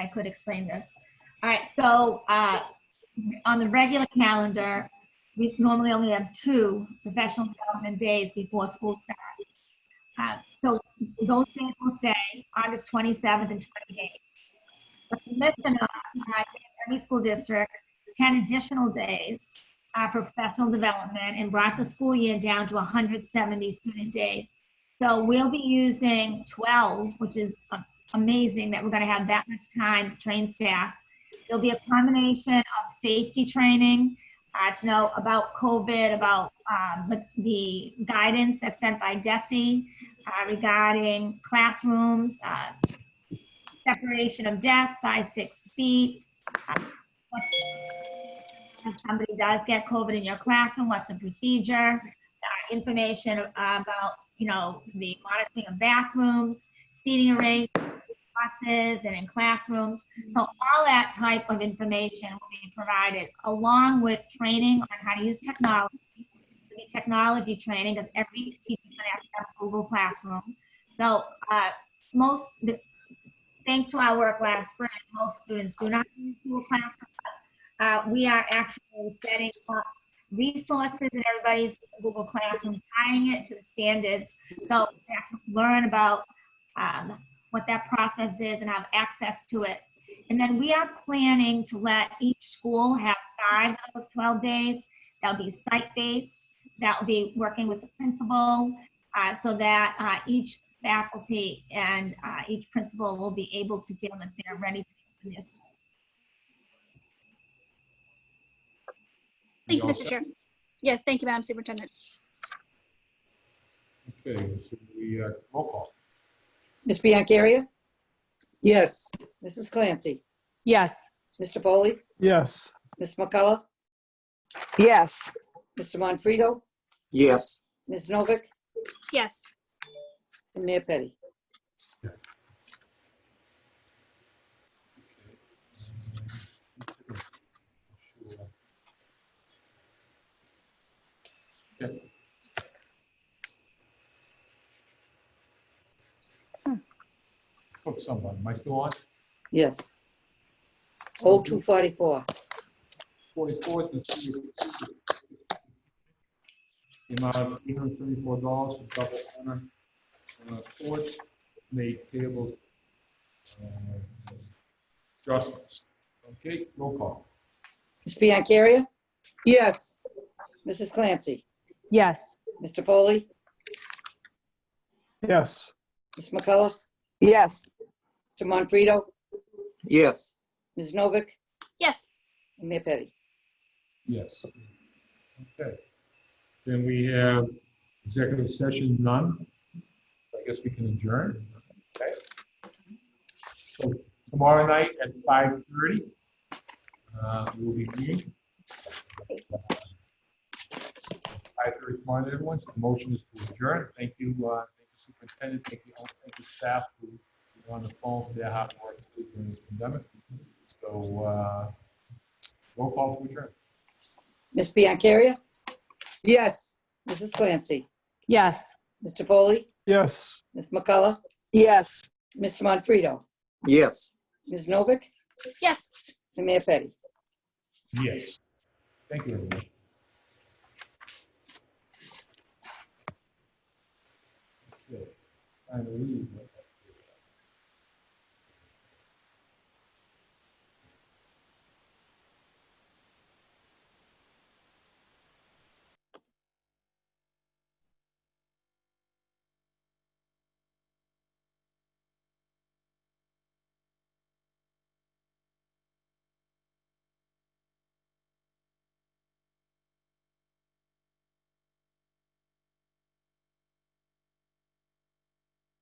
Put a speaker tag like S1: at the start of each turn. S1: I could explain this. All right, so uh, on the regular calendar, we normally only have two professional development days before school starts. Uh, So those days will stay, August 27th and 28th. But the commission, uh, uh, every school district, 10 additional days uh, for professional development and brought the school year down to 170 student days. So we'll be using 12, which is a amazing that we're going to have that much time to train staff. There'll be a combination of safety training uh, to know about COVID, about um, the, the guidance that's sent by DESE uh, regarding classrooms, uh, separation of desks by six feet. uh, what- If somebody does get COVID in your classroom, what's the procedure? Uh, information about, you know, the monitoring of bathrooms, seating arrangements buses and in classrooms. So all that type of information will be provided along with training on how to use technology. There'll be Technology training because every teacher's gonna have to have a Google Classroom. So, uh, most, the- thanks to our work last spring, most students do not use Google Classroom. but, Uh, we are actually setting up resources in everybody's Google Classroom, tying it to the standards. So they have to learn about, um, what that process is and have access to it. And then we are planning to let each school have five out of 12 days. That'll be site-based, that'll be working with the principal, uh, so that uh, each faculty and uh, each principal will be able to feel that they're ready for this.
S2: Thank you,
S3: all
S2: Mr.
S3: set?
S2: Chair. Yes, thank you, Madam Superintendent.
S3: Okay, so we, uh, roll call.
S4: Ms. Biancaria?
S5: Yes,
S4: Mrs. Clancy?
S6: Yes.
S4: Mr. Foley?
S7: Yes.
S4: Ms. McCullough?
S6: Yes.
S4: Mr. Monfredo,
S8: Yes,
S4: Ms. Novick?
S2: Yes,
S4: And Mayor Petty?
S3: Okay. Took someone, am I still on?
S4: Yes. O two forty-four.
S3: 44th and 46th. The amount of $834 for double honor uh, awards made payable. uh, Adjustments. Okay, roll call.
S4: Ms. Biancaria?
S5: yes,
S4: Mrs. Clancy?
S6: Yes.
S4: Mr. Foley?
S7: Yes.
S4: Ms. McCullough?
S6: Yes.
S4: Mr. Monfredo,
S8: yes,
S4: Ms. Novick?
S2: yes,
S4: And Mayor Petty?
S3: Yes. Okay. Then we have executive session none. I guess we can adjourn. Okay. So tomorrow night at 5:30, uh, we'll be meeting. 5:30 tomorrow, night, everyone. So the motion is to adjourn. Thank you, uh, thank you superintendent, thank you, all- thank you staff who were on the phone for their hard work during this pandemic. So, uh, roll call to adjourn.
S4: Ms. Biancaria?
S5: yes.
S4: Mrs. Clancy?
S6: Yes.
S4: Mr. Foley?
S7: Yes.
S4: Ms. McCullough?
S6: Yes.
S4: Mr. Monfredo,
S8: yes.
S4: Ms. Novick?
S2: yes.
S4: And Mayor Petty?
S3: Yes. Thank you, everyone. Okay. Time to leave, but-